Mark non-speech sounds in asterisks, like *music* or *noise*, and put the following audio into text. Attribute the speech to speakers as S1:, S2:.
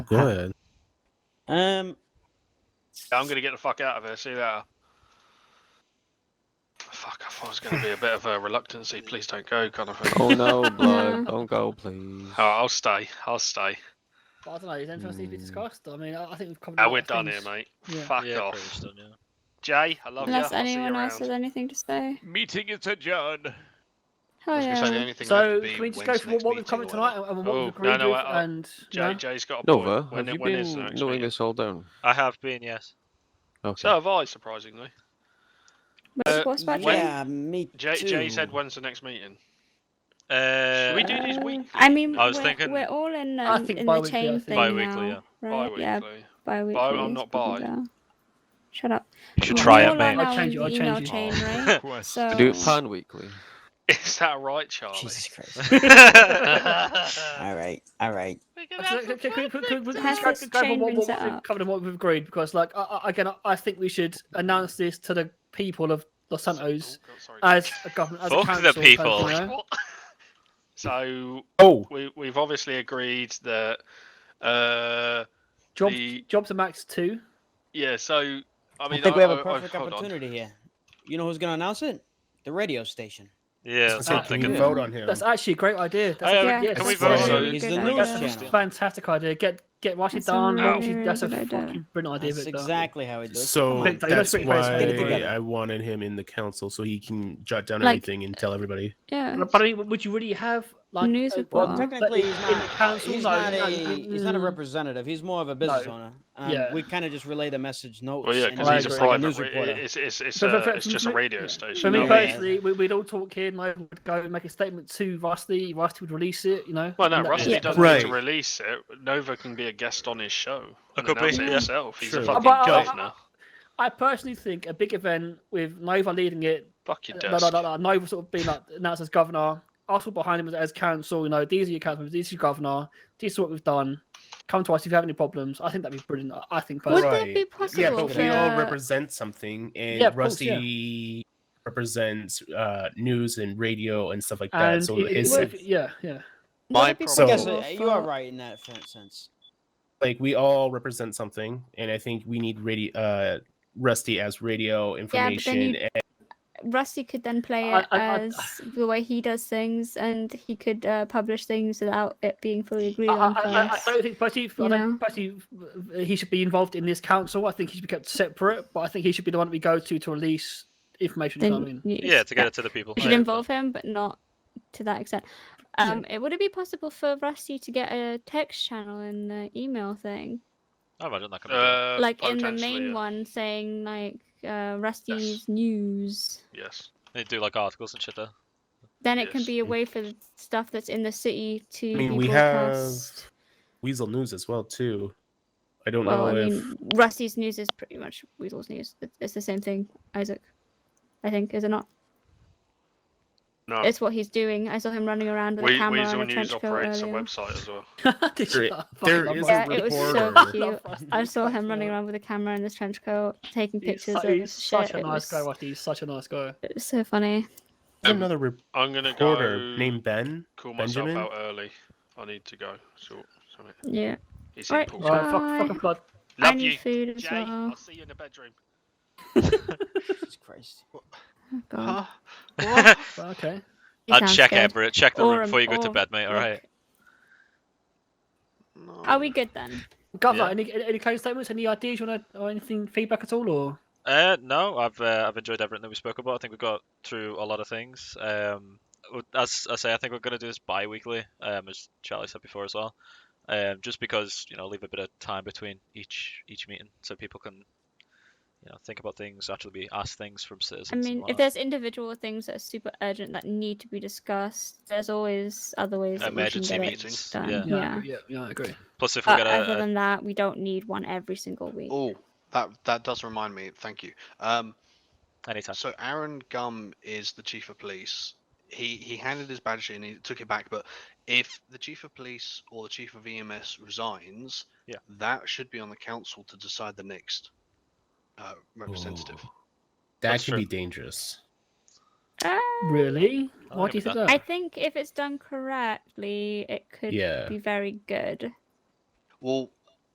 S1: Go ahead.
S2: Um,
S3: I'm gonna get the fuck out of here. See that? Fuck! I thought it was gonna be a bit of a reluctancy. Please don't go, kind of thing.
S4: Oh no, blood! Don't go, please.
S3: Oh, I'll stay. I'll stay.
S5: But I don't know. Is anything else need to be
S4: Mm.
S5: discussed? I mean, I, I think we've covered. a
S3: Ah,
S5: lot
S3: we're
S5: of
S3: done
S5: things.
S3: here, mate.
S5: Yeah.
S3: Fuck
S1: Yeah, pretty much
S3: off,
S1: done, yeah.
S3: Jay. I love
S6: Unless
S3: you. I'll see you
S6: anyone else
S3: around.
S6: has anything to say.
S5: Mm.
S7: Meeting is adjourned.
S6: Oh
S3: I was gonna say the
S6: yeah.
S3: only thing left
S5: So
S3: would be
S5: can we just go
S3: when's the
S5: through what,
S3: next
S5: what we've covered
S3: meeting or
S5: tonight and and what
S3: Oh,
S5: we've agreed
S3: no, no,
S5: with?
S3: I- I-
S5: and
S3: whatever.
S5: no?
S3: Jay, Jay's got a point.
S4: Nova,
S3: When,
S4: uh, have you
S3: when is
S4: been
S3: the next
S4: knowing
S3: meeting?
S4: this all down?
S1: I have been, yes.
S4: Okay.
S3: So have I, surprisingly. Uh,
S6: What's, what's Patrick?
S3: when-
S2: yeah, me
S3: Jay,
S2: too.
S3: Jay said, "When's the next meeting?"
S1: Uh,
S3: Should we do these
S6: Uh,
S3: weekly?
S6: I mean,
S1: I was
S6: we're,
S1: thinking-
S6: we're all in,
S5: I
S6: um,
S5: think
S6: in the
S5: bi-weekly, I
S6: chain
S5: think.
S6: thing
S1: Bi-weekly,
S6: now, right?
S3: Bi-weekly.
S6: Uh, Yeah, bi-weekly. uh,
S3: I'm not bi.
S6: Shut up.
S7: You should
S6: We're
S7: try
S6: all
S7: it,
S6: *laughs*
S8: *laughs*
S6: on
S7: mate.
S5: I'll
S6: our
S5: change it, I'll change
S6: email
S5: it.
S6: chain,
S3: *laughs*
S6: right?
S7: Quest.
S6: So
S4: Do
S3: uh,
S4: it pan weekly.
S3: *laughs* Is that right, Charlie?
S1: Jesus Christ.
S3: *laughs* Look
S1: all right, all right.
S3: at
S5: So,
S3: that
S5: can- can- can- can- can we
S6: Has
S5: just go-
S6: this
S5: go over
S6: chain
S5: what-
S6: been
S5: what
S6: set
S5: we've
S6: up?
S5: Covered and what we've agreed because, like, I, I, again, I think we should announce this to the people of Los Santos
S3: Oh, God, sorry.
S5: as a government, as a
S8: Fuck the
S5: council. kind of,
S8: people.
S5: you know?
S3: What? *laughs* so
S1: Oh,
S3: we, we've obviously agreed that uh
S5: Job,
S3: The-
S5: jobs are max two.
S3: yeah so i mean
S2: I, think we have a
S3: I- I-
S2: perfect
S3: Oh, hold on.
S2: opportunity here. You know who's going to announce it? The radio station.
S8: Yeah,
S5: That's
S8: that's what I'm
S5: okay.
S8: thinking.
S4: Yeah.
S9: vote on him.
S5: That's actually a great idea. That's a,
S6: yeah,
S5: yes,
S6: that's
S3: Oh, we
S6: a
S3: vote
S6: really
S3: on-
S6: good
S2: He's the
S6: idea.
S2: newest
S5: that's
S2: channel.
S5: a fantastic idea. Get get Rashid
S6: That's a
S5: down.
S6: really,
S5: Obviously, that's a
S6: really good idea.
S5: fucking brilliant idea. uh,
S2: That's
S5: Victor.
S2: exactly how it does.
S9: so
S5: Oh, Wait, that's
S9: that's
S5: pretty close. Get it
S9: why
S2: together.
S9: I wanted him in the council so he can jot down
S6: Like-
S9: everything and tell everybody.
S6: Yeah.
S5: But I mean, would you really have like
S6: News
S5: a-
S6: report. Well,
S5: but
S2: technically,
S5: in-
S2: he's
S5: in the
S2: not-
S5: council?
S2: He's
S5: no,
S2: not
S5: no,
S2: a he's not a
S5: mm,
S2: representative. He's more of a business
S5: No.
S2: owner. Um,
S5: Yeah.
S2: We kind of just relay the message notes.
S3: well yeah
S2: and
S3: because
S5: I
S2: it's
S3: he's a
S5: agree.
S2: just
S3: private
S2: news
S3: re-
S2: reporter.
S3: it's it's it's,
S5: For- for-
S3: a,
S5: for-
S3: it's just
S5: for
S3: a
S5: me-
S3: radio station
S5: For me
S3: no?
S2: Yeah.
S5: personally, we, we'd all talk here, and I would go and make a statement to Rusty. Rusty would release it, you know.
S3: well no
S5: and that-
S3: rusty
S6: Yeah.
S3: doesn't need
S9: Right.
S3: to release it nova can be a guest on his show
S8: I
S3: and
S8: could be,
S3: announce it
S8: yeah.
S3: himself he's
S9: True.
S3: a fucking
S2: uh,
S5: But I-
S3: governor
S5: I personally think a big event with Nova leading it, uh,
S3: fuck your
S5: no, no,
S3: desk
S5: no, no, Nova sort of being like announced as governor, us all behind him as, as council. You know, these are your council members, these are your governor. This is what we've done. Come to us if you have any problems. I think that'd be brilliant. I- I think
S6: Would
S5: personally.
S6: that
S9: Right.
S6: be possible
S9: Yeah, but we all
S6: for- uh,
S9: represent something, and
S5: uh, Yeah, of course,
S9: Rusty represents uh, news and radio and stuff like that.
S5: And
S9: so
S5: it- it
S9: it's
S5: would- yeah, yeah.
S6: Would
S3: my
S6: it be
S3: problem-
S9: So-
S2: Yes,
S6: possible
S2: uh, you are
S6: for-
S2: right in that for sense.
S9: like we all represent something, and I think we need radio, uh, Rusty as radio
S6: then
S9: information.
S6: you- Rusty could then play
S5: I-
S6: it
S5: I- I-
S6: as the way he does things, and he could uh, publish things without it being fully agreed
S5: I,
S6: on
S5: I, I- I
S6: first.
S5: don't think Patty, I
S6: you
S5: don't think Patty, he should be involved in this council. I think he should be kept separate, but I think he should be the one that we go to to release information. you know what I
S6: Then
S5: mean? *laughs*
S6: you-
S8: Yeah, to get
S6: that-
S8: it to the people.
S6: you should involve him, but not to that extent.
S5: Yeah.
S6: Um, it would it be possible for Rusty to get a text channel in the email thing,
S8: I imagine that can be.
S3: Uh,
S6: like in the
S3: potentially,
S6: main
S3: yeah.
S6: one, saying like uh, Rusty's news?
S3: yes
S8: They do like articles and shit there.
S6: Then it can
S3: Yes.
S6: be a way for the stuff that's in the city to
S9: I mean,
S6: be
S9: we have
S6: broadcast.
S9: Weasel News as well too. I don't
S6: well, I
S9: know if
S6: mean, Rusty's news is pretty much Weasel's news. It- It's the same thing, Isaac. I think is it not?
S3: no
S6: It's what he's doing. I saw him running around with a
S3: we,
S6: camera
S3: Weasel
S6: and a
S3: News
S6: trench coat
S3: operates a
S6: earlier.
S3: website as well.
S5: This-
S9: There-
S5: I fucking
S9: there
S5: love
S9: is a
S6: Yeah,
S5: Rusty.
S6: it
S5: *laughs*
S6: was so
S9: reporter.
S6: cute.
S5: Love Rusty.
S6: I saw him running
S5: Yeah.
S6: around with a camera and this trench coat, taking
S5: He's
S6: pictures
S5: su-
S6: of his
S5: he's such
S6: shit.
S5: a
S6: It
S5: nice guy,
S6: was-
S5: Rusty. He's such a nice guy.
S6: it was so funny.
S9: there's another reporter
S3: I'm gonna go
S9: named Ben.
S3: call myself
S9: Benjamin?
S3: out early. I need to go. So, something.
S6: Yeah.
S3: It's
S6: Right.
S3: important.
S5: Right,
S6: Bye.
S5: fuck, fuck a blood.
S6: I
S3: Love
S6: need
S3: you,
S6: food as
S3: Jay.
S6: well.
S3: I'll see you in the bedroom.
S2: Jesus Christ.
S6: Oh, God.
S3: What?
S5: Well, Okay.
S6: He
S8: I'd
S6: sounds
S8: check
S6: scared.
S8: Everett, check the
S6: Or
S8: room
S6: um,
S8: before you go to
S6: or-
S8: bed, mate. All
S6: look.
S8: right.
S6: Are we good then?
S5: Governor,
S8: Yeah.
S5: any, any closing statements, any ideas you want to, or anything, feedback at all? Or
S8: Uh, no, I've uh, I've enjoyed everything that we spoke about. I think we got through a lot of things. Um, w- as I say, I think we're gonna do this bi-weekly, um, as Charlie said before as well. Um, just because you know, leave a bit of time between each each meeting so people can, you know, think about things, actually be asked things from citizens.
S6: I
S8: and
S6: mean, if
S8: whatnot.
S6: there's individual things that are super urgent that need to be discussed, there's always other ways that
S8: emergency
S6: we can get
S8: meetings,
S6: it done.
S8: yeah.
S6: yeah.
S5: yeah, yeah, I agree.
S8: plus if we
S6: But
S8: get
S6: other
S8: a, a
S6: than that, we don't need one every single week.
S10: Oh, that that does remind me. Thank you. Um,
S8: anytime,
S10: so Aaron Gum is the chief of police. He he handed his badge in. He took it back. But if the chief of police or the chief of EMS resigns,
S8: Yeah.
S10: that should be on the council to decide the next uh, representative.
S9: Ooh. That
S8: That's
S9: could
S8: true.
S9: be dangerous.
S6: Ah,
S5: Really?
S8: I'll
S5: Why do you
S8: give
S5: think
S8: it that.
S5: that?
S6: I think if it's done correctly, it could
S9: Yeah.
S6: be very good.
S10: Well,